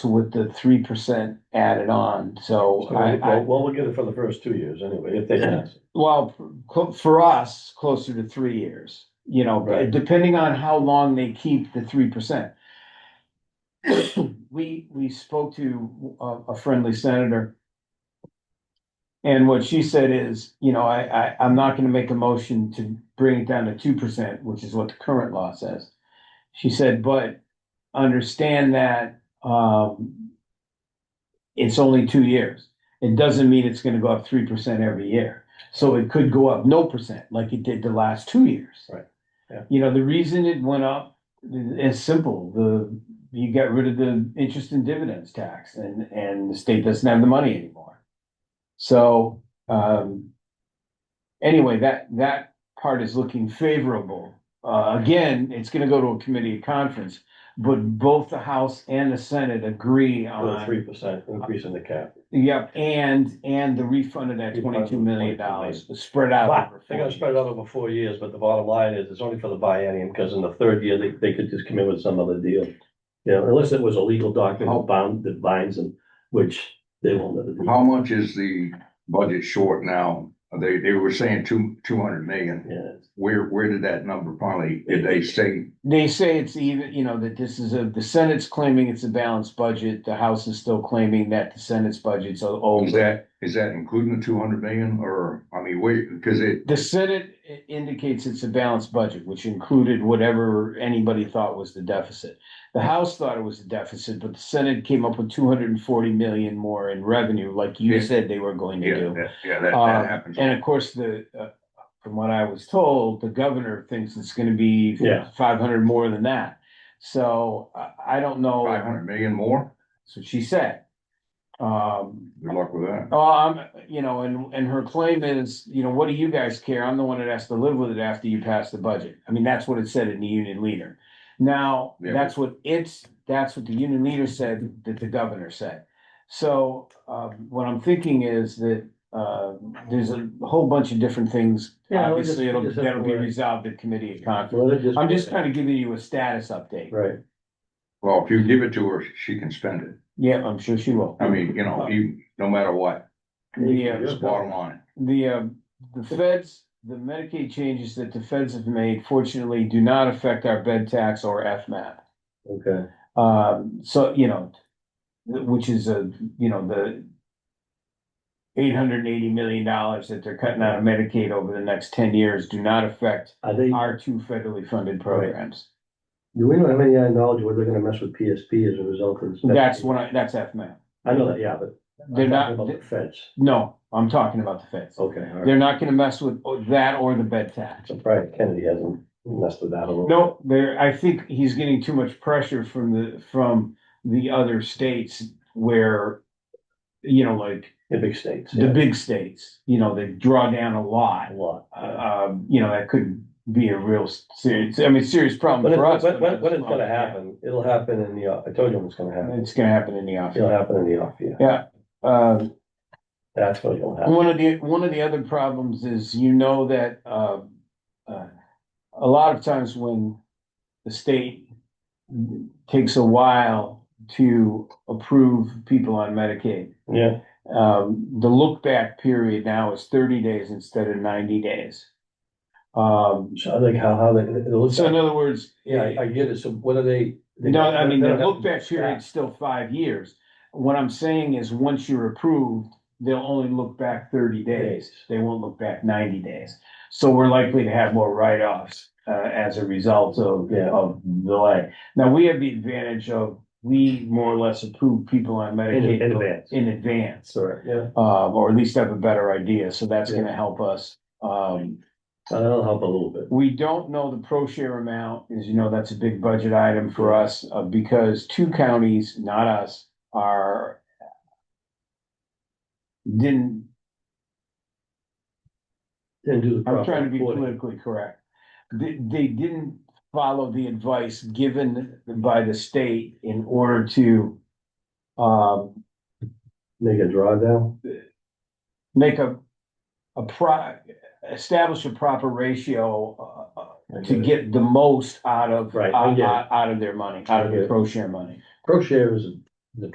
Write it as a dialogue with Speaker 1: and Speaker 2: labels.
Speaker 1: with the three percent added on, so
Speaker 2: So,
Speaker 1: I, I,
Speaker 2: Well, well, we'll get it for the first two years anyway, if they pass.
Speaker 1: well, for- for us, closer to three years. You know,
Speaker 2: Right.
Speaker 1: depending on how long they keep the three percent. We, we spoke to uh, a, a friendly senator. And what she said is, you know, I, I, I'm not gonna make a motion to bring it down to two percent, which is what the current law says. She said, but understand that, um. It's only two years. It doesn't mean it's gonna go up three percent every year. So it could go up no percent like it did the last two years.
Speaker 2: Right, yeah.
Speaker 1: You know, the reason it went up is simple. The, you got rid of the interest and dividends tax and, and the state doesn't have the money anymore. So, um, anyway, that, that part is looking favorable. Uh, again, it's gonna go to a committee of conference, but both the House and the Senate agree
Speaker 2: For the
Speaker 1: on,
Speaker 2: three percent increase in the cap.
Speaker 1: yep, and, and the refund of that twenty-two million dollars spread out.
Speaker 2: But
Speaker 1: over
Speaker 2: they're
Speaker 1: four
Speaker 2: gonna spread it out over four years, but the bottom line is, it's only for the biennium, because in the third year, they, they could just come in with some other deal. You know, unless it was a legal document that bound, that binds them, which they will never do.
Speaker 3: How much is the budget short now? They, they were saying two, two hundred million.
Speaker 2: Yeah,
Speaker 3: Where, where did that number finally, did they say?
Speaker 1: They say it's even, you know, that this is a, the Senate's claiming it's a balanced budget, the House is still claiming that the Senate's budget's o-
Speaker 3: oh, Is
Speaker 1: over.
Speaker 3: that, is that including the two hundred million or, I mean, wait, because it,
Speaker 1: The Senate i- indicates it's a balanced budget, which included whatever anybody thought was the deficit. The House thought it was a deficit, but the Senate came up with two hundred and forty million more in revenue, like you
Speaker 3: Yeah.
Speaker 1: said they were going to
Speaker 3: yeah,
Speaker 1: do.
Speaker 3: that- yeah, that,
Speaker 1: Uh,
Speaker 3: that happens.
Speaker 1: And of course, the, uh, from what I was told, the governor thinks it's gonna be
Speaker 2: Yeah.
Speaker 1: five hundred more than that. So I, I don't know.
Speaker 3: Five hundred million more?
Speaker 1: That's what she said. Um,
Speaker 3: Good luck with that.
Speaker 1: oh, I'm, you know, and, and her claim is, you know, what do you guys care? I'm the one that has to live with it after you pass the budget. I mean, that's what it said in the union leader. Now,
Speaker 3: Yeah.
Speaker 1: that's what it's, that's what the union leader said, that the governor said. So, um, what I'm thinking is that, uh, there's a whole bunch of different things.
Speaker 2: Yeah, we just-
Speaker 1: Obviously, it'll,
Speaker 2: we just have
Speaker 1: that'll be
Speaker 2: to-
Speaker 1: resolved at committee of conference.
Speaker 2: Well, they're
Speaker 1: I'm just kind of giving you a status update.
Speaker 2: Right,
Speaker 3: Well, if you give it to her, she can spend it.
Speaker 1: Yeah, I'm sure she will.
Speaker 3: I mean, you know, you, no matter what,
Speaker 1: The, uh,
Speaker 3: it's bottom line.
Speaker 1: The, um, the feds, the Medicaid changes that the feds have made fortunately do not affect our bed tax or FMAP.
Speaker 2: okay.
Speaker 1: Um, so, you know, th- which is a, you know, the eight hundred and eighty million dollars that they're cutting out of Medicaid over the next ten years do not affect
Speaker 2: Are they,
Speaker 1: our two federally funded programs.
Speaker 2: do we know how many knowledge, where they're gonna mess with PSP as a result of this?
Speaker 1: That's what I, that's FMAP.
Speaker 2: I know that, yeah, but. I'm
Speaker 1: They're
Speaker 2: talking
Speaker 1: not-
Speaker 2: About the feds,
Speaker 1: No, I'm talking about the feds.
Speaker 2: Oh, okay, all right.
Speaker 1: They're not gonna mess with oh, that or the bed tax.
Speaker 2: Surprised Kennedy hasn't messed with that a little.
Speaker 1: No, there, I think he's getting too much pressure from the, from the other states where, you know, like
Speaker 2: The big states.
Speaker 1: the
Speaker 2: yeah,
Speaker 1: big states, you know, they draw down a
Speaker 2: A
Speaker 1: lot.
Speaker 2: lot.
Speaker 1: Uh, Um, you know, that could be a real serious, I mean, serious problem
Speaker 2: But
Speaker 1: for us.
Speaker 2: it's, when,
Speaker 1: but
Speaker 2: when, when it's gonna happen, it'll happen in the, off- I told you when it's gonna happen,
Speaker 1: It's gonna happen in the office.
Speaker 2: it'll happen in the off year,
Speaker 1: Um,
Speaker 2: that's what will happen.
Speaker 1: One of the, one of the other problems is you know that, uh, uh, a lot of times when the state takes a while to approve people on Medicaid,
Speaker 2: Yeah,
Speaker 1: um, the look back period now is thirty days instead of ninety days. Um,
Speaker 2: so I think how, how they, it'll,
Speaker 1: so in other words,
Speaker 2: yeah, I- I get it, so what are they? they-
Speaker 1: no, I mean,
Speaker 2: they
Speaker 1: the
Speaker 2: don't have
Speaker 1: look
Speaker 2: to
Speaker 1: back
Speaker 2: stack.
Speaker 1: period's still five years. What I'm saying is, once you're approved, they'll only look back thirty days.
Speaker 2: Days.
Speaker 1: They won't look back ninety days. So we're likely to have more write-offs, uh, as a result of,
Speaker 2: Yeah.
Speaker 1: of delay. Now, we have the advantage of, we more or less approve people on
Speaker 2: In,
Speaker 1: Medicaid.
Speaker 2: in advance,
Speaker 1: In advance,
Speaker 2: sorry, yeah,
Speaker 1: um, or at least have a better idea, so that's
Speaker 2: Yeah.
Speaker 1: gonna help us. Um,
Speaker 2: So that'll help a little bit,
Speaker 1: we don't know the pro share amount, as you know, that's a big budget item for us, uh, because two counties, not us, are didn't,
Speaker 2: and do the
Speaker 1: I'm
Speaker 2: proper
Speaker 1: trying to be
Speaker 2: reporting.
Speaker 1: politically correct. They, they didn't follow the advice given by the state in order to um,
Speaker 2: Make a drawdown,
Speaker 1: make a, a pro, establish a proper ratio uh,
Speaker 2: I
Speaker 1: to
Speaker 2: get it.
Speaker 1: get the most out of,
Speaker 2: Right, I
Speaker 1: out,
Speaker 2: get it.
Speaker 1: out- out of their money, out of
Speaker 2: I get
Speaker 1: the
Speaker 2: it.
Speaker 1: pro share money.
Speaker 2: pro share is a